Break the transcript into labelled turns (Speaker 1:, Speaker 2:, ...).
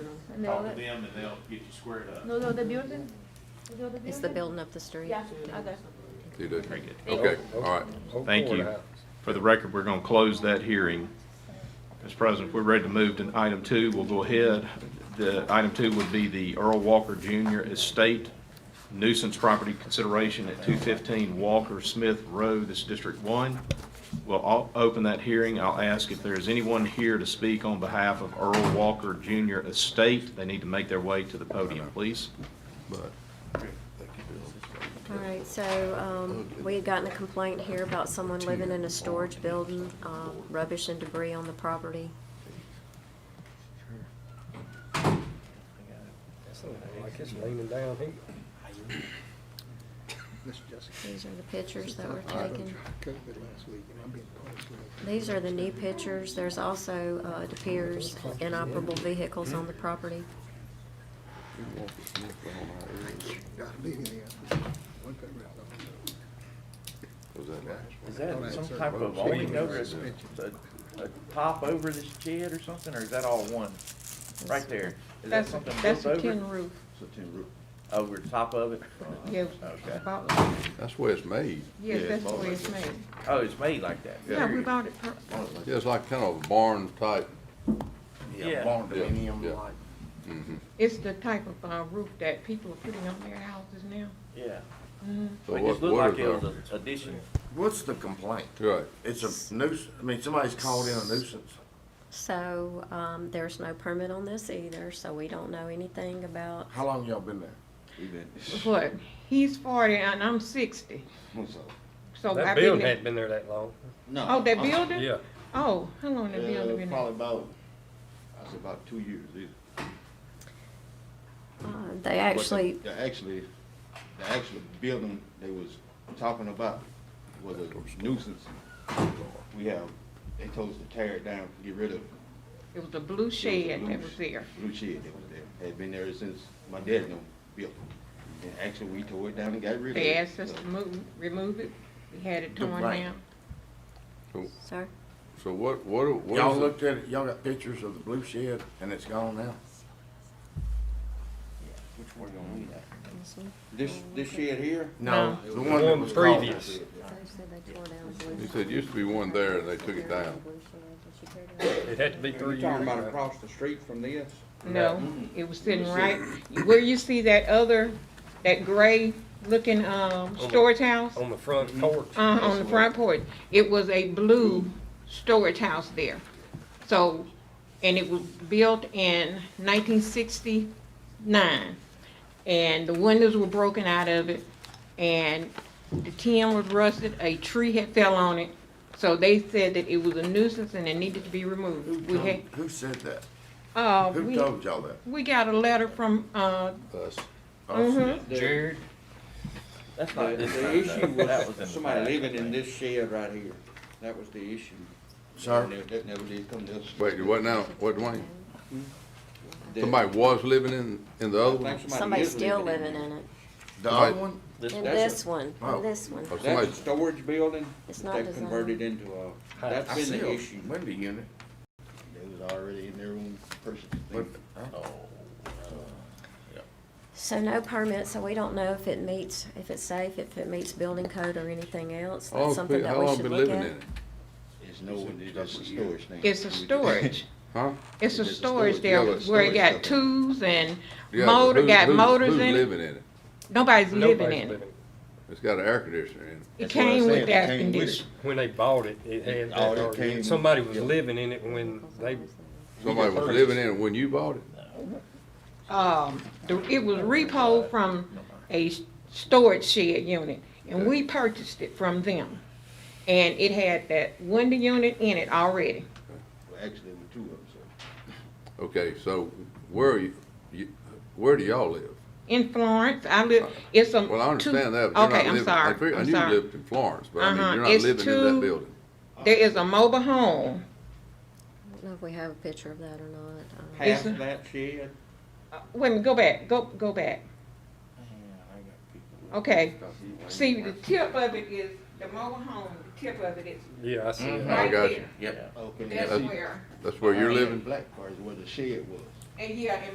Speaker 1: And they'll
Speaker 2: talk
Speaker 1: let-
Speaker 2: to them and they'll get you squared up.
Speaker 1: No, no, the building, is it the
Speaker 3: It's the
Speaker 1: building?
Speaker 3: building up the street.
Speaker 1: Yeah, okay.
Speaker 4: You do?
Speaker 2: Very good.
Speaker 4: Okay, all right.
Speaker 2: Thank you. For the record, we're going to close that hearing. Mr. President, if we're ready to move to item two, we'll go ahead. The, item two would be the Earl Walker Jr. Estate nuisance property consideration at 215 Walker Smith Road, this is District 1. We'll o- open that hearing. I'll ask if there is anyone here to speak on behalf of Earl Walker Jr. Estate. They need to make their way to the podium, please.
Speaker 3: All right, so, um, we had gotten a complaint here about someone living in a storage building, um, rubbish and debris on the property.
Speaker 5: Like it's raining down here.
Speaker 3: These are the pictures that were taken. These are the new pictures. There's also, uh, it appears inoperable vehicles on the property.
Speaker 6: Is that some type of awning over, it, a, a top over the shed or something, or is that all one? Right there, is that
Speaker 7: That's,
Speaker 6: something
Speaker 7: that's
Speaker 6: built
Speaker 7: a
Speaker 6: over?
Speaker 7: tin roof,
Speaker 6: Over the top of it?
Speaker 7: yeah.
Speaker 6: Okay.
Speaker 7: about-
Speaker 4: That's where it's made.
Speaker 7: Yes,
Speaker 6: Yeah,
Speaker 7: that's the
Speaker 6: about
Speaker 7: way
Speaker 6: like
Speaker 7: it's
Speaker 6: this.
Speaker 7: made.
Speaker 6: Oh, it's made like that?
Speaker 7: Yeah, we
Speaker 6: Period.
Speaker 7: bought it, per-
Speaker 4: Yeah, it's like kind of a barn type.
Speaker 6: Yeah.
Speaker 4: Yeah, yeah.
Speaker 7: it's the type of, uh, roof that people are putting on their houses now.
Speaker 6: Yeah.
Speaker 4: So
Speaker 6: It
Speaker 4: what,
Speaker 6: just looked
Speaker 4: what
Speaker 6: like
Speaker 4: is
Speaker 6: it was
Speaker 4: our?
Speaker 6: an addition.
Speaker 8: What's the complaint?
Speaker 4: Right,
Speaker 8: It's a nuisance, I mean, somebody's called in a nuisance.
Speaker 3: So, um, there's no permit on this either, so we don't know anything about,
Speaker 8: How long y'all been there?
Speaker 7: But he's forty and I'm sixty, so I been
Speaker 5: That building
Speaker 7: there.
Speaker 5: hadn't been there that long.
Speaker 9: No.
Speaker 7: Oh, that building?
Speaker 5: Yeah.
Speaker 7: Oh, how long
Speaker 9: Uh,
Speaker 7: the building been there?
Speaker 9: Probably about, I was about two years. It-
Speaker 3: uh, they
Speaker 9: but the-
Speaker 3: actually,
Speaker 9: The actually, the actual building they was talking about was a nuisance. We have, they told us to tear it down, get rid of it.
Speaker 7: It was a blue
Speaker 9: It
Speaker 7: shed
Speaker 9: a
Speaker 7: that
Speaker 9: blue
Speaker 7: was
Speaker 9: sh-
Speaker 7: there.
Speaker 9: Blue shed that was there. Had been there since my dad done built it. And actually, we tore it down and got rid of it.
Speaker 7: They asked us
Speaker 9: So-
Speaker 7: to move, remove it, we had it
Speaker 8: The
Speaker 7: torn
Speaker 8: right.
Speaker 7: down.
Speaker 3: sir,
Speaker 4: so what, what, what
Speaker 8: Y'all
Speaker 4: is it?
Speaker 8: looked at it, y'all got pictures of the blue shed and it's gone now?
Speaker 9: Which one gonna we have?
Speaker 3: this one.
Speaker 9: This, this shed here?
Speaker 7: No.
Speaker 8: The one that
Speaker 5: One
Speaker 8: was called.
Speaker 5: previous.
Speaker 4: He said, used to be one there and they took it down.
Speaker 5: It had to be
Speaker 9: Are
Speaker 5: three
Speaker 9: you talking
Speaker 5: years
Speaker 9: about
Speaker 5: ago.
Speaker 9: across the street from this?
Speaker 7: No, it was sitting right, where you see that other, that gray looking, um,
Speaker 5: the-
Speaker 7: storage house?
Speaker 5: On the front porch.
Speaker 7: Uh, on the front porch, it was a blue storage house there. So, and it was built in nineteen sixty-nine. And the windows were broken out of it, and the tin was rusted, a tree had fell on it. So they said that it was a nuisance and it needed to be
Speaker 8: Who
Speaker 7: removed. We
Speaker 8: told,
Speaker 7: had,
Speaker 8: who said that?
Speaker 7: uh,
Speaker 8: Who
Speaker 7: we,
Speaker 8: told y'all that?
Speaker 7: we got a letter from, uh,
Speaker 4: Us.
Speaker 8: Us.
Speaker 7: Mm-hmm.
Speaker 5: Jared,
Speaker 6: That's
Speaker 9: The,
Speaker 6: not this
Speaker 9: the
Speaker 6: time,
Speaker 9: issue
Speaker 6: though. That was in
Speaker 9: was
Speaker 6: the
Speaker 9: somebody
Speaker 6: past, I
Speaker 9: living in
Speaker 6: think.
Speaker 9: this shed right here. That was the issue. And
Speaker 8: Sir,
Speaker 9: That that never did come to us.
Speaker 4: Wait, what now? What, Dwayne?
Speaker 9: That-
Speaker 4: Somebody was living in, in the
Speaker 9: I
Speaker 4: other one?
Speaker 9: think
Speaker 3: Somebody's
Speaker 9: is
Speaker 3: still living in it.
Speaker 8: the other one,
Speaker 3: In
Speaker 9: That's
Speaker 3: this
Speaker 9: a-
Speaker 3: one,
Speaker 8: Oh.
Speaker 3: in this one.
Speaker 4: Or somebody-
Speaker 9: That's a storage building
Speaker 3: It's
Speaker 9: that
Speaker 3: not
Speaker 9: they've converted into a, that's
Speaker 8: I
Speaker 9: been
Speaker 8: see
Speaker 9: the
Speaker 8: a
Speaker 9: issue.
Speaker 8: window unit,
Speaker 9: They was already in their own personal
Speaker 8: but,
Speaker 9: thing.
Speaker 8: oh,
Speaker 3: So no permit, so we don't know if it meets, if it's safe, if it meets building code or anything else.
Speaker 4: How long
Speaker 3: That's something
Speaker 4: been-
Speaker 3: that
Speaker 4: Oh, how
Speaker 3: we
Speaker 4: long
Speaker 3: should
Speaker 4: been
Speaker 3: look
Speaker 4: living in
Speaker 3: at.
Speaker 4: it?
Speaker 9: It's no, it's just a storage thing.
Speaker 7: it's a storage.
Speaker 4: Huh?
Speaker 7: It's a
Speaker 9: It's a
Speaker 7: storage
Speaker 9: storage,
Speaker 7: there
Speaker 4: yeah, it's
Speaker 7: where it
Speaker 4: storage
Speaker 7: got
Speaker 9: stuff.
Speaker 7: tools and
Speaker 4: Yeah, but
Speaker 7: motor,
Speaker 4: who-
Speaker 7: got
Speaker 4: who-
Speaker 7: motors
Speaker 4: who's
Speaker 7: in it.
Speaker 4: living in it?
Speaker 7: Nobody's living
Speaker 5: nobody's
Speaker 7: in
Speaker 5: living.
Speaker 7: it.
Speaker 4: It's got an air conditioner in it.
Speaker 7: It
Speaker 9: That's what I
Speaker 7: came with
Speaker 9: said, it
Speaker 7: that
Speaker 9: came with
Speaker 7: condition.
Speaker 5: When they bought it, it had
Speaker 9: It-
Speaker 5: that
Speaker 9: all it
Speaker 5: already.
Speaker 9: came-
Speaker 5: Somebody was
Speaker 9: yeah.
Speaker 5: living in it when they,
Speaker 4: Somebody was living in it when you bought it?
Speaker 7: Um, the- it was repo from a s- storage shed unit, and we purchased it from them. And it had that window unit in it already.
Speaker 9: Well, Actually, there were two of them, so.
Speaker 4: Okay, so where are you, you, where do y'all live?
Speaker 7: In Florence, I live, it's a.
Speaker 4: Well, I
Speaker 7: two-
Speaker 4: understand that, but you're
Speaker 7: Okay,
Speaker 4: not
Speaker 7: I'm
Speaker 4: living, I
Speaker 7: sorry,
Speaker 4: figured, I
Speaker 7: I'm
Speaker 4: knew you
Speaker 7: sorry.
Speaker 4: lived in Florence, but I mean,
Speaker 7: Uh-huh,
Speaker 4: you're not
Speaker 7: it's
Speaker 4: living in that
Speaker 7: two-
Speaker 4: building.
Speaker 7: There is a mobile home,
Speaker 3: I don't know if we have a picture of that or not.
Speaker 9: Half
Speaker 7: It's
Speaker 9: of that shed,
Speaker 7: Uh, wait a minute, go back, go, go back. Okay, see, the tip of it is, the mobile home, the tip of it is Mm-hmm.
Speaker 5: yeah, I see it.
Speaker 7: right
Speaker 4: got
Speaker 7: there.
Speaker 4: you.
Speaker 8: yep.
Speaker 9: okay.
Speaker 7: That's
Speaker 4: That's-
Speaker 7: where, Oh,
Speaker 4: That's where you're
Speaker 9: Behind
Speaker 4: living?
Speaker 9: Black part is where the shed was.
Speaker 7: and yeah, and